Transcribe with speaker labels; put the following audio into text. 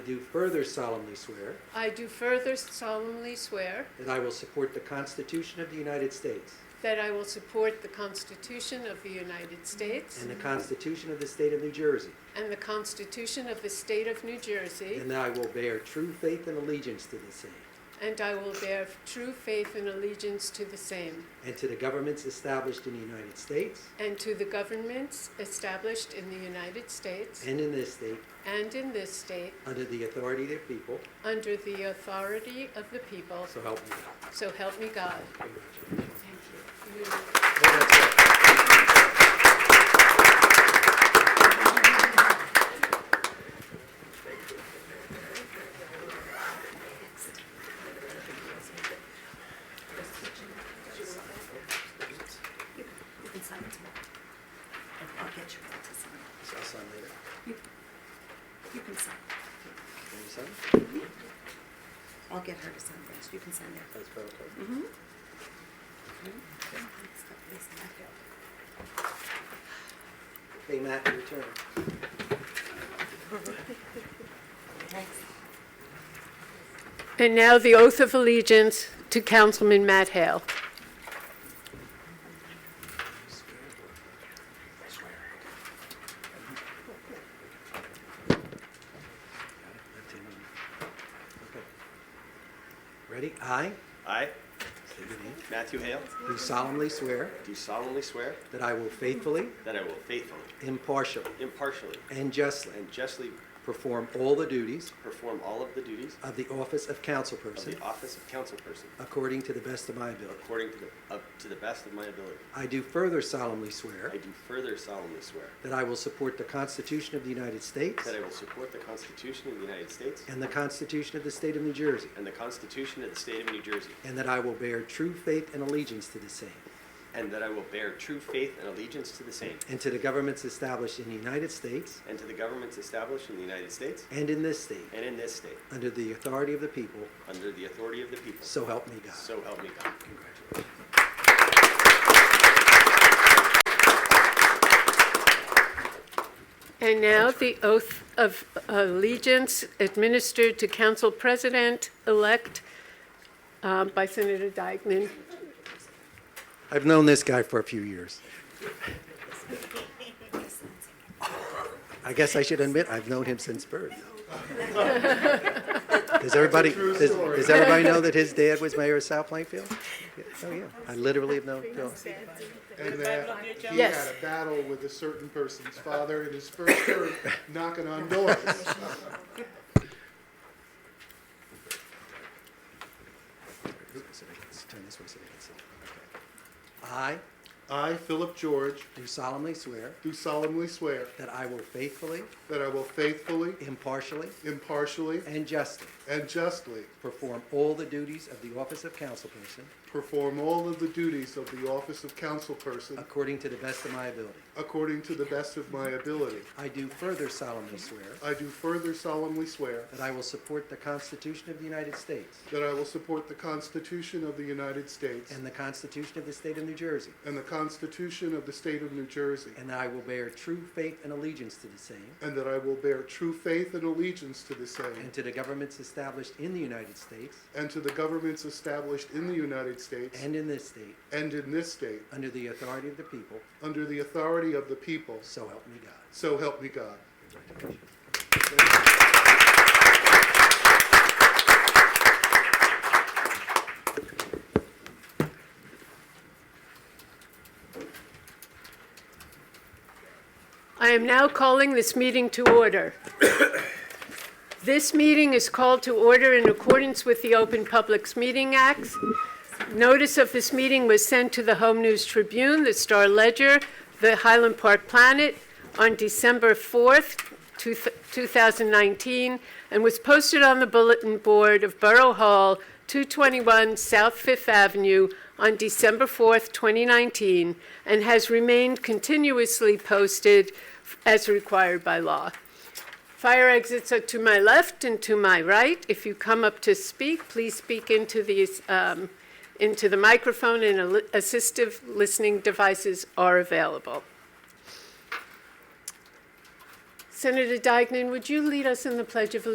Speaker 1: do further solemnly swear
Speaker 2: I do further solemnly swear
Speaker 1: that I will support the Constitution of the United States
Speaker 2: that I will support the Constitution of the United States
Speaker 1: and the Constitution of the State of New Jersey,
Speaker 2: and the Constitution of the State of New Jersey,
Speaker 1: and that I will bear true faith and allegiance to the same
Speaker 2: and I will bear true faith and allegiance to the same
Speaker 1: and to the governments established in the United States
Speaker 2: and to the governments established in the United States
Speaker 1: and in this state
Speaker 2: and in this state
Speaker 1: under the authority of the people,
Speaker 2: under the authority of the people.
Speaker 1: so help me God.
Speaker 2: So help me God.
Speaker 1: Congratulations.
Speaker 2: Thank you.
Speaker 1: Well, that's it.
Speaker 3: You can sign it tomorrow. I'll get you to sign it.
Speaker 1: So I'll sign later.
Speaker 3: You can sign.
Speaker 1: Can you sign?
Speaker 3: I'll get her to sign first. You can sign there.
Speaker 1: That's better.
Speaker 3: Mm-hmm.
Speaker 1: Okay, Matt, your turn.
Speaker 2: And now the oath of allegiance to Councilman Matt Hale.
Speaker 1: Left hand on. Okay. Ready? I,
Speaker 4: I,
Speaker 1: say your name,
Speaker 4: Matthew Hale,
Speaker 1: do solemnly swear
Speaker 4: do solemnly swear
Speaker 1: that I will faithfully,
Speaker 4: that I will faithfully,
Speaker 1: impartially,
Speaker 4: impartially,
Speaker 1: and justly
Speaker 4: and justly
Speaker 1: perform all the duties
Speaker 4: perform all of the duties
Speaker 1: of the office of
Speaker 4: of
Speaker 1: councilperson
Speaker 4: the office of councilperson
Speaker 1: according to the best of my ability.
Speaker 4: according to the, up to the best of my ability.
Speaker 1: I do further solemnly swear
Speaker 4: I do further solemnly swear
Speaker 1: that I will support the Constitution of the United States
Speaker 4: that I will support the Constitution of the United States
Speaker 1: and the Constitution of the State of New Jersey,
Speaker 4: and the Constitution of the State of New Jersey,
Speaker 1: and that I will bear true faith and allegiance to the same
Speaker 4: and that I will bear true faith and allegiance to the same
Speaker 1: and to the governments established in the United States
Speaker 4: and to the governments established in the United States
Speaker 1: and in this state
Speaker 4: and in this state,
Speaker 1: under the authority of the people,
Speaker 4: under the authority of the people.
Speaker 1: so help me God.
Speaker 4: So help me God.
Speaker 1: Congratulations.
Speaker 2: And now the oath of allegiance administered to Council President-elect uh, by Senator Dyckman.
Speaker 1: I've known this guy for a few years. I guess I should admit I've known him since birth. Does everybody does, does everybody know that his dad was mayor of South Plainfield? Yeah, Oh yeah, I literally have known. Phil.
Speaker 5: and that he
Speaker 2: Yes.
Speaker 5: had a battle with a certain person's father in his first term, knocking on doors.
Speaker 1: So they can Turn this way so they can see. Okay. I
Speaker 5: I, Philip George,
Speaker 1: do solemnly swear
Speaker 5: do solemnly swear
Speaker 1: that I will faithfully,
Speaker 5: that I will faithfully,
Speaker 1: impartially,
Speaker 5: impartially,
Speaker 1: and justly
Speaker 5: and justly
Speaker 1: perform all the duties of the office of councilperson
Speaker 5: perform all of the duties of the office of councilperson
Speaker 1: according to the best of my ability.
Speaker 5: according to the best of my ability.
Speaker 1: I do further solemnly swear
Speaker 5: I do further solemnly swear
Speaker 1: that I will support the Constitution of the United States
Speaker 5: that I will support the Constitution of the United States
Speaker 1: and the Constitution of the State of New Jersey,
Speaker 5: and the Constitution of the State of New Jersey,
Speaker 1: and that I will bear true faith and allegiance to the same
Speaker 5: and that I will bear true faith and allegiance to the same
Speaker 1: and to the governments established in the United States
Speaker 5: and to the governments established in the United States
Speaker 1: and in this state
Speaker 5: and in this state
Speaker 1: under the authority of the people,
Speaker 5: under the authority of the people.
Speaker 1: so help me God.
Speaker 5: So help me God.
Speaker 2: I am now calling this meeting to order. This meeting is called to order in accordance with the Open Publics Meeting Act. Notice of this meeting was sent to the Home News Tribune, the Star Ledger, the Highland Park Planet on December 4th, two- 2019, and was posted on the bulletin board of Borough Hall, 221 South Fifth Avenue on December 4th, 2019, and has remained continuously posted as required by law. Fire exits are to my left and to my right. If you come up to speak, please speak into these, um, into the microphone and al- assistive listening devices are available. Senator Dyckman, would you lead us in the Pledge of